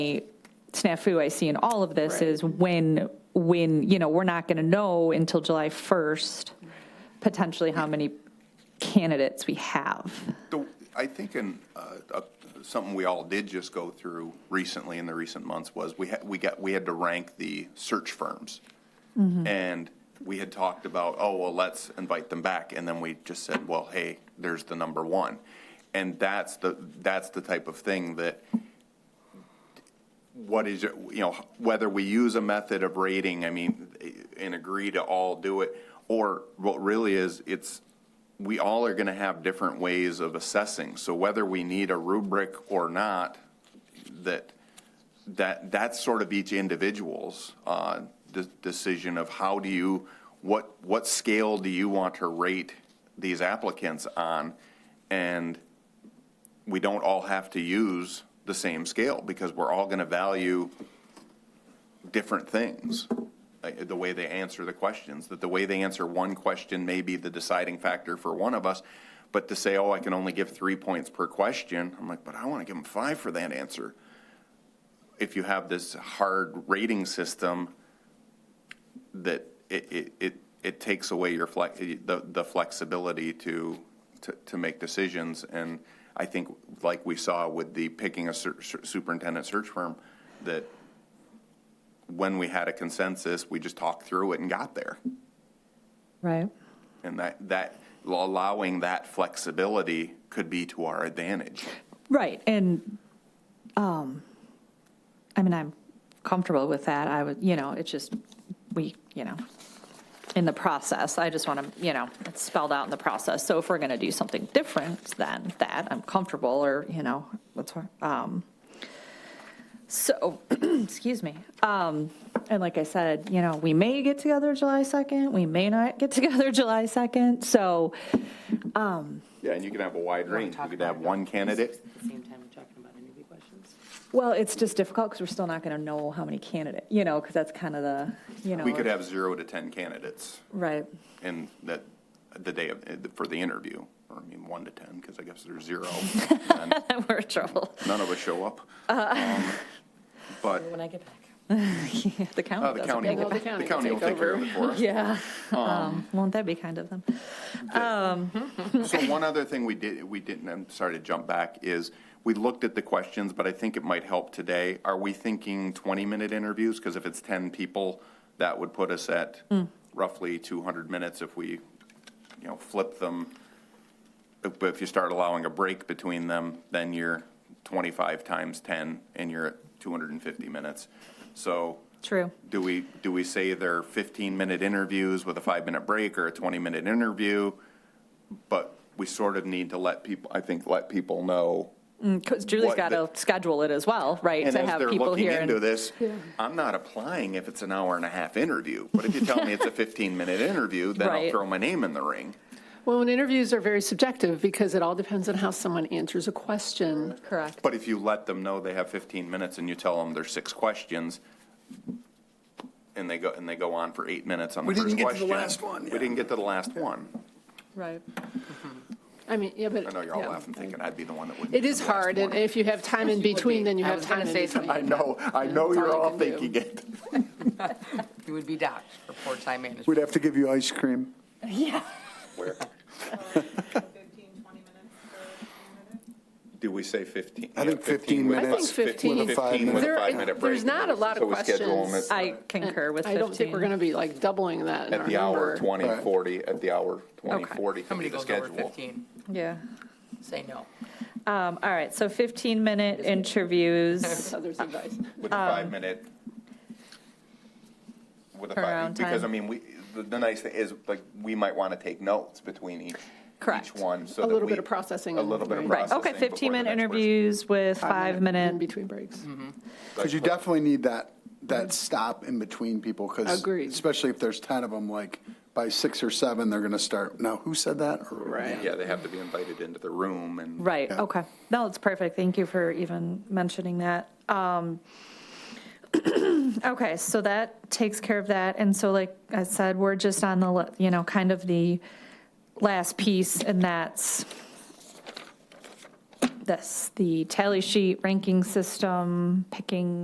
snafu I see in all of this is when, when, you know, we're not going to know until July 1st, potentially how many candidates we have. The- I think in, uh, uh, something we all did just go through recently in the recent months was we had, we got, we had to rank the search firms. And we had talked about, oh, well, let's invite them back. And then we just said, well, hey, there's the number one. And that's the, that's the type of thing that, what is, it- you know, whether we use a method of rating, I mean, and agree to all do it, or what really is, it's, we all are going to have different ways of assessing. So whether we need a rubric or not, that, that, that's sort of each individual's uh, de- decision of how do you, what, what scale do you want to rate these applicants on? And we don't all have to use the same scale because we're all going to value different things. Like, The way they answer the questions, that the way they answer one question may be the deciding factor for one of us. But to say, oh, I can only give three points per question, I'm like, but I want to give them five for that answer. If you have this hard rating system that it, it, it, it takes away your flex, the, the flexibility to, to, to make decisions. And I think like we saw with the picking a ser- ser- superintendent search firm, that when we had a consensus, we just talked through it and got there. Right. And that, that, allowing that flexibility could be to our advantage. Right, and, um, I mean, I'm comfortable with that, I would, you know, it's just, we, you know, in the process, I just want to, you know, it's spelled out in the process, so if we're going to do something different than that, I'm comfortable, or, you know, what's, um, so, excuse me, um, and like I said, you know, we may get together July 2nd, we may not get together July 2nd, so, Yeah, and you can have a wide range. You talk could about have it one on the candidate. 26th At the same time we're talking about interview questions. Well, it's just difficult because we're still not going to know how many candidate, you know, because that's kind of the, you know. We could have zero to 10 candidates Right, in that, the day of, eh, for the interview. Or I mean, one to 10, because I guess there's zero. and we're in trouble. None of us show up. Um, But When I get back. The uh, county the doesn't county, make it. will- The back. the county county will will take care of it for us. Yeah, um, won't that be kind of them? So one other thing we did, we didn't, I'm sorry to jump back, is we looked at the questions, but I think it might help today. Are we thinking 20-minute interviews? Because if it's 10 people, that would put us at roughly 200 minutes if we, you know, flip them. If- But if you start allowing a break between them, then you're 25 times 10 and you're at 250 minutes. So True. do we, do we say they're 15-minute interviews with a five-minute break or a 20-minute interview? But we sort of need to let people, I think, let people know. Because Julie's What got to the- schedule it as well, right? And To as have they're people looking here. into and- this, I'm not applying if it's an hour and a half interview. But if you tell me it's a 15-minute interview, then I'll Right. throw my name in the ring. Well, and interviews are very subjective because it all depends on how someone answers a question. Correct. But if you let them know they have 15 minutes and you tell them there's six questions, and they go, and they go on for eight minutes on the We first didn't question. get to the last one, We yeah. didn't get to the last one. Right. I mean, yeah, but. I know you're all yeah. laughing, thinking I'd be the one that wouldn't. It get is to the last hard, and one. if you have time in between, then you I have was gonna time in say between. something. I know, I know you're That's all you all can do. thinking it. You would be docked for poor time management. We'd have to give you ice cream. Do we say 15? I think Yeah, 15 with- I minutes. think 15. With a There- 15 with a five-minute break. there's not a lot of So we schedule 'em questions. at- I concur with I 15. don't think we're going to be like doubling that in our At the hour number. 20, Right. 40, at the hour 20, Okay. 40 could be Somebody the goes over schedule. 15, Yeah. say no. Um, All right, so 15-minute interviews. So there's advice. With a Um, five-minute. With a Turnaround five, because I time. mean, we, the, the nice thing is, like, we might want to take notes between each, each Correct. one. so A that little we- bit of processing A and- little bit of Right. Right, processing. okay, before the 15-minute next person. interviews with In five-minute, between breaks. Because you definitely need that, that stop in between people, because. Agreed. Especially if there's 10 of them, like, by six or seven, they're going to start, now, who said that? Or- Yeah, they have to be invited into the room and. right, Yeah. okay. No, it's perfect, thank you for even mentioning that. Um, Okay, so that takes care of that, and so like I said, we're just on the, la- you know, kind of the last piece, and that's this, the tally sheet, ranking system, picking